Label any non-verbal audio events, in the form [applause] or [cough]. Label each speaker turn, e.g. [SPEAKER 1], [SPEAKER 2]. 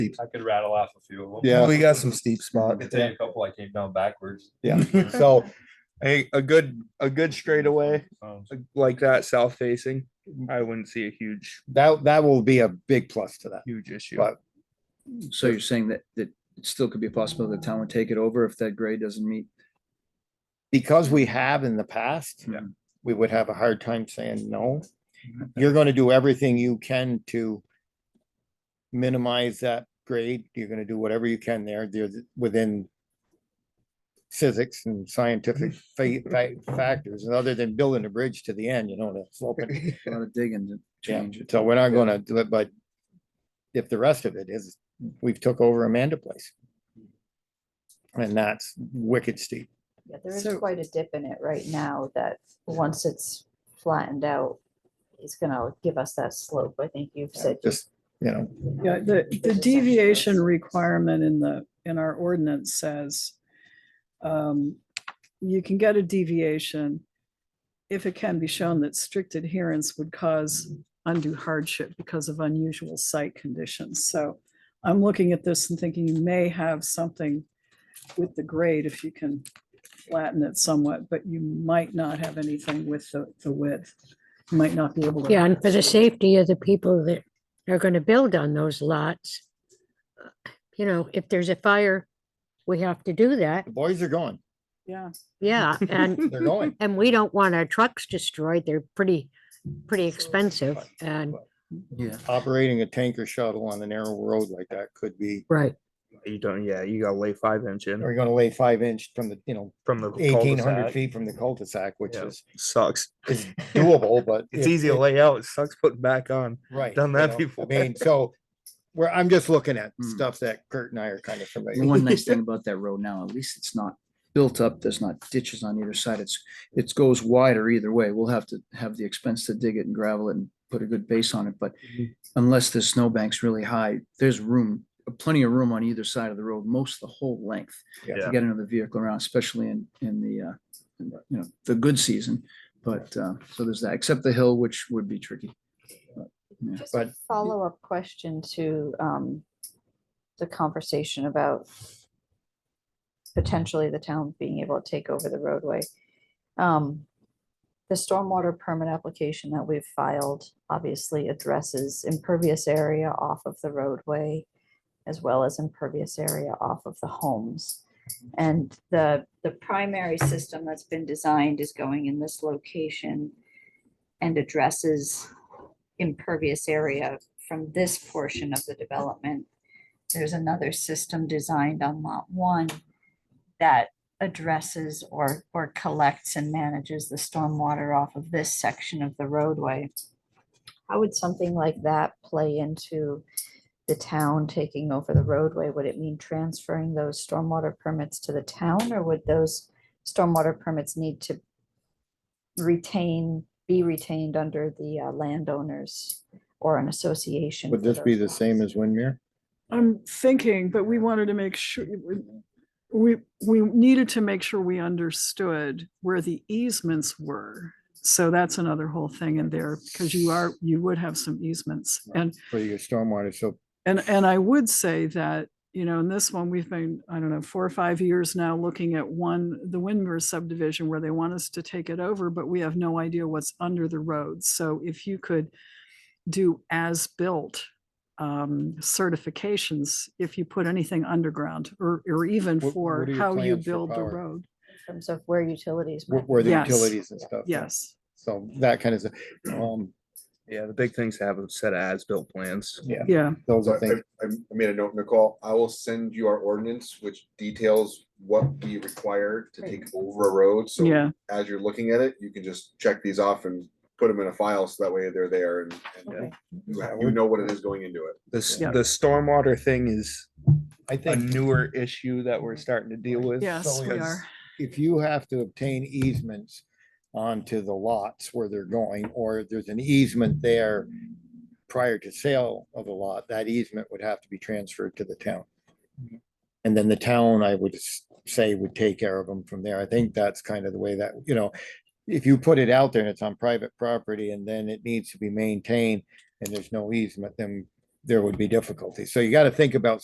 [SPEAKER 1] steep.
[SPEAKER 2] I could rattle off a few of them.
[SPEAKER 1] Yeah, we got some steep
[SPEAKER 2] I
[SPEAKER 1] spots.
[SPEAKER 2] could tell you a couple I came down backwards.
[SPEAKER 1] Yeah, so a, a good, a good straightaway
[SPEAKER 2] Um,
[SPEAKER 3] like that south facing, I wouldn't see a huge,
[SPEAKER 1] that, that will be a big plus to that.
[SPEAKER 3] huge issue.
[SPEAKER 1] But-
[SPEAKER 4] So you're saying that, that it still could be possible the town would take it over if that grade doesn't meet?
[SPEAKER 1] Because we have in the past,
[SPEAKER 4] Yeah.
[SPEAKER 1] we would have a hard time saying no. You're gonna do everything you can to minimize that grade. You're gonna do whatever you can there, there, within physics and scientific fa- fa- factors, and other than building a bridge to the end, you know, to slope it
[SPEAKER 4] A lot of digging to
[SPEAKER 1] Yeah,
[SPEAKER 4] change it.
[SPEAKER 1] so we're not gonna do it, but if the rest of it is, we've took over Amanda Place. And that's wicked steep.
[SPEAKER 5] Yeah, there is
[SPEAKER 4] So-
[SPEAKER 5] quite a dip in it right now that, once it's flattened out, it's gonna give us that slope. I think you've said. you-
[SPEAKER 1] Just, you know,
[SPEAKER 6] Yeah, the, the
[SPEAKER 5] There's a section where
[SPEAKER 6] deviation
[SPEAKER 5] it's-
[SPEAKER 6] requirement in the, in our ordinance says um, you can get a deviation if it can be shown that strict adherence would cause undue hardship because of unusual site conditions. So I'm looking at this and thinking you may have something with the grade if you can flatten it somewhat, but you might not have anything with the, the width. You Might not be able to.
[SPEAKER 7] Yeah, and for the safety of the people that are gonna build on those lots. You know, if there's a fire, we have to do that,
[SPEAKER 1] the boys are going,
[SPEAKER 6] Yeah.
[SPEAKER 7] yeah, and,
[SPEAKER 1] [laughs] they're going.
[SPEAKER 7] and we don't want our trucks destroyed, they're pretty, pretty expensive, and,
[SPEAKER 4] Yeah.
[SPEAKER 1] Operating a tanker shuttle on a narrow road like that could be,
[SPEAKER 7] right,
[SPEAKER 3] You don't, yeah, you gotta lay five inch in
[SPEAKER 1] are you gonna lay five inch from the, you know,
[SPEAKER 3] from the
[SPEAKER 1] eighteen hundred
[SPEAKER 3] cul-de-sac.
[SPEAKER 1] feet from the cul-de-sac, which
[SPEAKER 3] Yeah.
[SPEAKER 1] is
[SPEAKER 3] Sucks.
[SPEAKER 1] is doable, but.
[SPEAKER 3] [laughs] It's
[SPEAKER 1] it-
[SPEAKER 3] easy to
[SPEAKER 1] it-
[SPEAKER 3] lay out. It sucks putting back on.
[SPEAKER 1] Right.
[SPEAKER 3] done
[SPEAKER 1] you
[SPEAKER 3] that
[SPEAKER 1] know,
[SPEAKER 3] before.
[SPEAKER 1] I mean, so, where I'm just looking at
[SPEAKER 4] Hmm.
[SPEAKER 1] stuff that Kurt and I are kind of
[SPEAKER 4] The
[SPEAKER 1] familiar. with.
[SPEAKER 4] one nice thing about that road now, at least it's not built up, there's not ditches on either side, it's, it goes wider either way. We'll have to have the expense to dig it and gravel it and put a good base on it, but unless the snowbank's really high, there's room, uh, plenty of room on either side of the road, most the whole length.
[SPEAKER 1] Yeah.
[SPEAKER 4] To get another vehicle around, especially in, in the, uh, in the, you know, the good season, but, uh, so there's that, except the hill, which would be tricky. Yeah,
[SPEAKER 5] Just a
[SPEAKER 1] but-
[SPEAKER 5] follow-up question to um, the conversation about potentially the town being able to take over the roadway. Um, The stormwater permit application that we've filed obviously addresses impervious area off of the roadway as well as impervious area off of the homes. And the, the primary system that's been designed is going in this location and addresses impervious area from this portion of the development. There's another system designed on lot one that addresses or, or collects and manages the stormwater off of this section of the roadway. How would something like that play into the town taking over the roadway? Would it mean transferring those stormwater permits to the town or would those stormwater permits need to retain, be retained under the uh, landowners or an association?
[SPEAKER 1] Would
[SPEAKER 5] for
[SPEAKER 1] this
[SPEAKER 5] those
[SPEAKER 1] be the
[SPEAKER 5] lots?
[SPEAKER 1] same as Windmere?
[SPEAKER 6] I'm thinking, but we wanted to make sure, we, we needed to make sure we understood where the easements were. So that's another whole thing in there, because you are, you would have some easements. And,
[SPEAKER 1] for your stormwater, so
[SPEAKER 6] and, and I would say that, you know, in this one, we've been, I don't know, four or five years now looking at one, the Windmer subdivision where they want us to take it over, but we have no idea what's under the road. So if you could do as-built um, certifications if you put anything underground or, or even
[SPEAKER 1] What-
[SPEAKER 6] for
[SPEAKER 1] what are your
[SPEAKER 6] how you
[SPEAKER 1] plans for
[SPEAKER 6] build the
[SPEAKER 1] power?
[SPEAKER 6] road.
[SPEAKER 5] In terms of where utilities.
[SPEAKER 1] where,
[SPEAKER 5] might
[SPEAKER 1] where
[SPEAKER 5] be.
[SPEAKER 1] the
[SPEAKER 6] Yes.
[SPEAKER 1] utilities and stuff. yeah.
[SPEAKER 6] Yes.
[SPEAKER 1] So that kind of, um,
[SPEAKER 3] Yeah, the big thing's to have a set of as-built plans.
[SPEAKER 1] yeah,
[SPEAKER 6] Yeah.
[SPEAKER 1] those
[SPEAKER 8] So
[SPEAKER 1] are
[SPEAKER 8] I,
[SPEAKER 1] things.
[SPEAKER 8] I- I made a note, Nicole, I will send you our ordinance, which details what we require to take over a road, so.
[SPEAKER 6] Yeah.
[SPEAKER 8] As you're looking at it, you can just check these off and put them in a file, so that way they're there and,
[SPEAKER 5] Okay.
[SPEAKER 8] and you ha- you know what it is going into it.
[SPEAKER 3] The, s-
[SPEAKER 6] Yeah.
[SPEAKER 3] the stormwater thing is
[SPEAKER 1] I
[SPEAKER 3] a
[SPEAKER 1] think
[SPEAKER 3] newer issue that we're starting to deal with.
[SPEAKER 6] Yes, we
[SPEAKER 3] because
[SPEAKER 6] are.
[SPEAKER 1] if you have to obtain easements onto the lots where they're going, or there's an easement there prior to sale of the lot, that easement would have to be transferred to the town. And then the town, I would s- say, would take care of them from there. I think that's kind of the way that, you know, if you put it out there and it's on private property and then it needs to be maintained and there's no easement, then there would be difficulty. So you got to think about